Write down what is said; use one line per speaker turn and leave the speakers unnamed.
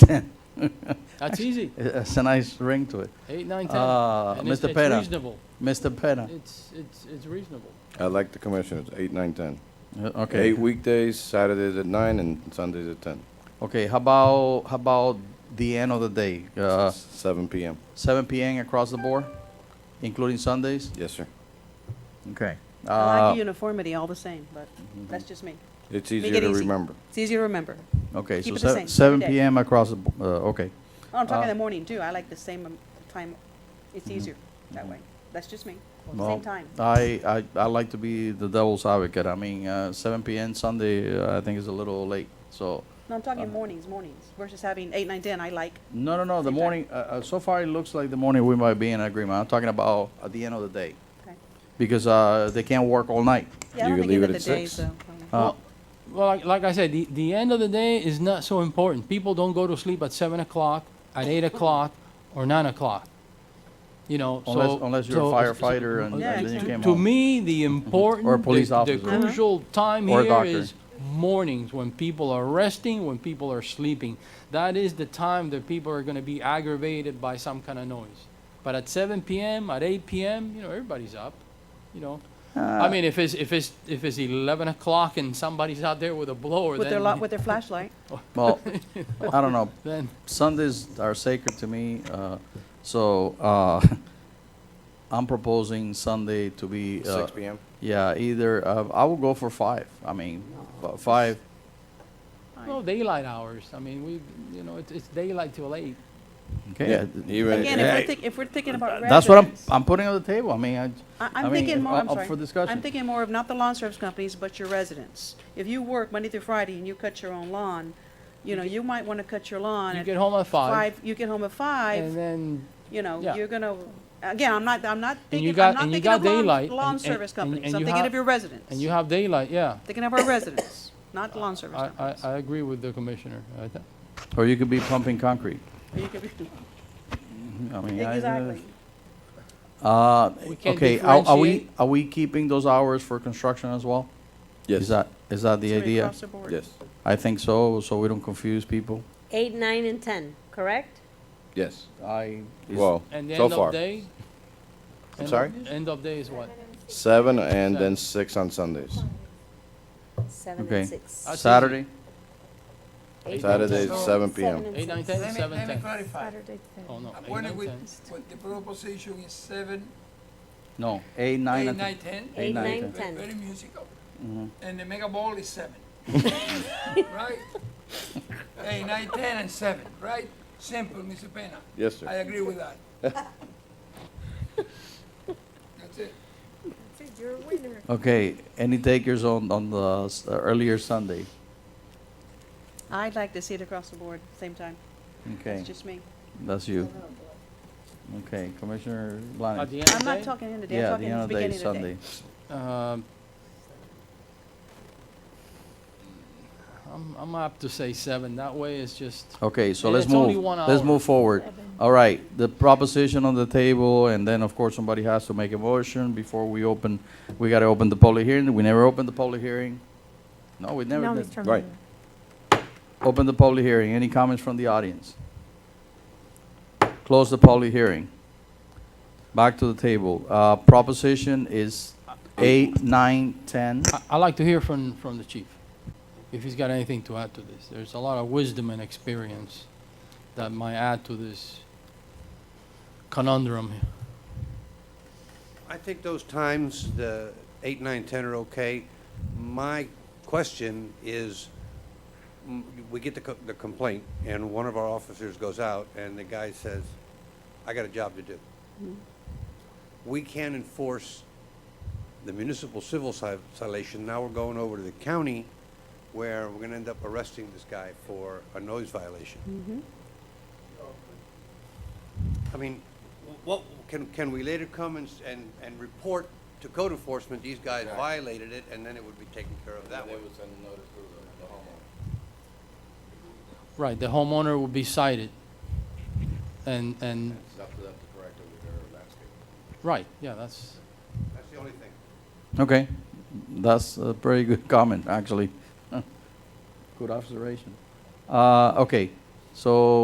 10.
That's easy.
It's a nice ring to it.
Eight, nine, ten.
Uh,
And it's-
Mr.
it's
Pena,
reasonable.
Mr. Pena.
It's, it's, it's reasonable.
I like the commissioners, eight, nine, ten.
Uh, Okay,
Eight weekdays, Saturdays at nine, and Sundays at ten,
okay, how about, how about the end of the day? Uh,
seven PM.
7 PM across the board, including Sundays?
Yes, sir.
Okay.
I like
Uh, Mm-hmm.
the uniformity all the same, but that's just me.
It's
Make
easier
it
to
easy.
remember.
It's easier to remember.
Okay, so
keep it the
sev-
same, keep it
7
day.
PM across the, bo- uh, okay.
Oh,
Uh,
I'm talking
Mm-hmm.
in the morning too. I like the same um, time. It's easier that way. That's just me.
Well,
Same time.
I, I, I like to be the devil's advocate. I mean, uh, 7 PM Sunday, uh, I think is a little late, so.
No, I'm
uh,
talking mornings, mornings versus having eight, nine, ten. I like.
No, no, no, the
Same time.
morning, uh, uh, so far it looks like the morning we might be in agreement. I'm talking about at the end of the day,
Okay.
because uh, they can't work all night.
Yeah, I
You
don't
could
think
leave
end
it
of the
at
day,
six.
so. um,
Uh,
Well, like, like I said, the, the end of the day is not so important. People don't go to sleep at seven o'clock, at eight o'clock, or nine o'clock. You know, so.
Unless- unless you're a
so- so-
firefighter and-
uh,
and then you
to-
came
To
home.
me, the important.
Or a police
the-
officer.
The crucial time
Or a
here
doctor.
is mornings, when people are resting, when people are sleeping. That is the time that people are gonna be aggravated by some kind of noise. But at seven PM, at eight PM, you know, everybody's up, you know.
Uh,
I mean, if it's, if it's, if it's eleven o'clock and somebody's out there with a blower,
With their,
then,
lo- with their flashlight.
Well, I don't know.
then,
Sundays are sacred to me, uh, so uh, I'm proposing Sunday to be. uh,
Six PM?
Yeah, either uh, I will go for five. I mean, f- five.
no, daylight hours. I mean, we, you know, it's, it's daylight till eight.
Okay. I-
Even,
Again, if
Hey,
we're thinking, if we're thinking about
That's what I'm.
residents,
I'm putting on the table. I mean, I,
I-
I
I'm
mean,
thinking more,
up-
I'm
up
sorry.
for discussion.
I'm thinking more of not the lawn service companies, but your residents. If you work Monday through Friday and you cut your own lawn, you know, you might want to cut your lawn
You
at
get home at five,
five, you get home at
and
five,
then
you know,
yeah.
you're gonna, again, I'm not, I'm not
And you
thinking,
got-
I'm not
and you
thinking
got
of lawn,
daylight,
lawn
and-
service
and- and-
companies.
and
I'm
you
thinking
have-
of your residents.
And you have daylight, yeah.
Thinking of our residents, not lawn service
I, I,
companies.
I agree with the commissioner. I th-
or you could be pumping concrete. Mm-hmm.
You could be-
I mean, I-
Exactly.
Uh,
We can't
okay. Are, are we
differentiate.
are we keeping those hours for construction as well? Is
yes,
that is that the
Somebody
idea?
across the board.
yes,
I think so. So we don't confuse people.
8, 9, and 10, correct?
yes.
I
Well,
And the
so
end of
far,
day? end of-
sorry?
End of day is what?
seven and then six on Sundays.
7
Okay.
and 6.
Uh,
That's easy.
Saturday.
Eight, nine,
Saturdays,
ten.
7 p.m.
and
Eight, nine, ten,
six.
Let me,
seven,
let me
ten.
clarify.
Oh, no,
I'm
eight,
wondering
nine,
with,
ten.
with the proposition is seven,
No, eight, nine,
eight,
and
nine, ten,
Eight,
Eight,
nine,
nine,
ten.
ve-
ten.
very musical. And the mega ball is seven. Right? Eight, nine, ten, and seven, right? Simple, Mr. Pena.
Yes, sir.
I agree with that. That's it.
Okay, any takers on, on the s- uh, earlier Sunday?
I'd like to see it across the board, same time.
Okay,
It's just me.
that's you. Okay, Commissioner
At
Blanes.
the end
I'm not
of
talking in the day,
Yeah,
I'm
the
talking
end
in the
of the day,
beginning of the day.
Sunday.
day? Um, I'm, I'm apt to say seven. That way it's just,
Okay, so
And
let's
it's only
move,
one
let's
hour.
move forward. All right, the proposition on the table, and then, of course, somebody has to make a motion before we open, we gotta open the public hearing. We never opened the public hearing. No, we never did.
Right.
Open the public hearing. Any comments from the audience? Close the public hearing. Back to the table. Uh, proposition is eight, nine, ten.
I, I like to hear from, from the chief, if he's got anything to add to this. There's a lot of wisdom and experience that might add to this conundrum here.
I think those times, the eight, nine, ten are okay. My question is, m- Mm, we get the co- the complaint, and one of our officers goes out, and the guy says, "I got a job to do." We can enforce the municipal civil ci- citation. Now we're going over to the county, where we're gonna end up arresting this guy for a noise violation. I mean, what, can, can we later come and, s- and, and report to code enforcement, these guys violated it, and then it would be taken care of that way?
Right, the homeowner will be cited. And, and,
It's up to them to correct it with their landscape.
right, yeah, that's,
That's the only thing.
Okay, that's a very good comment, actually. Good observation. Uh, okay, so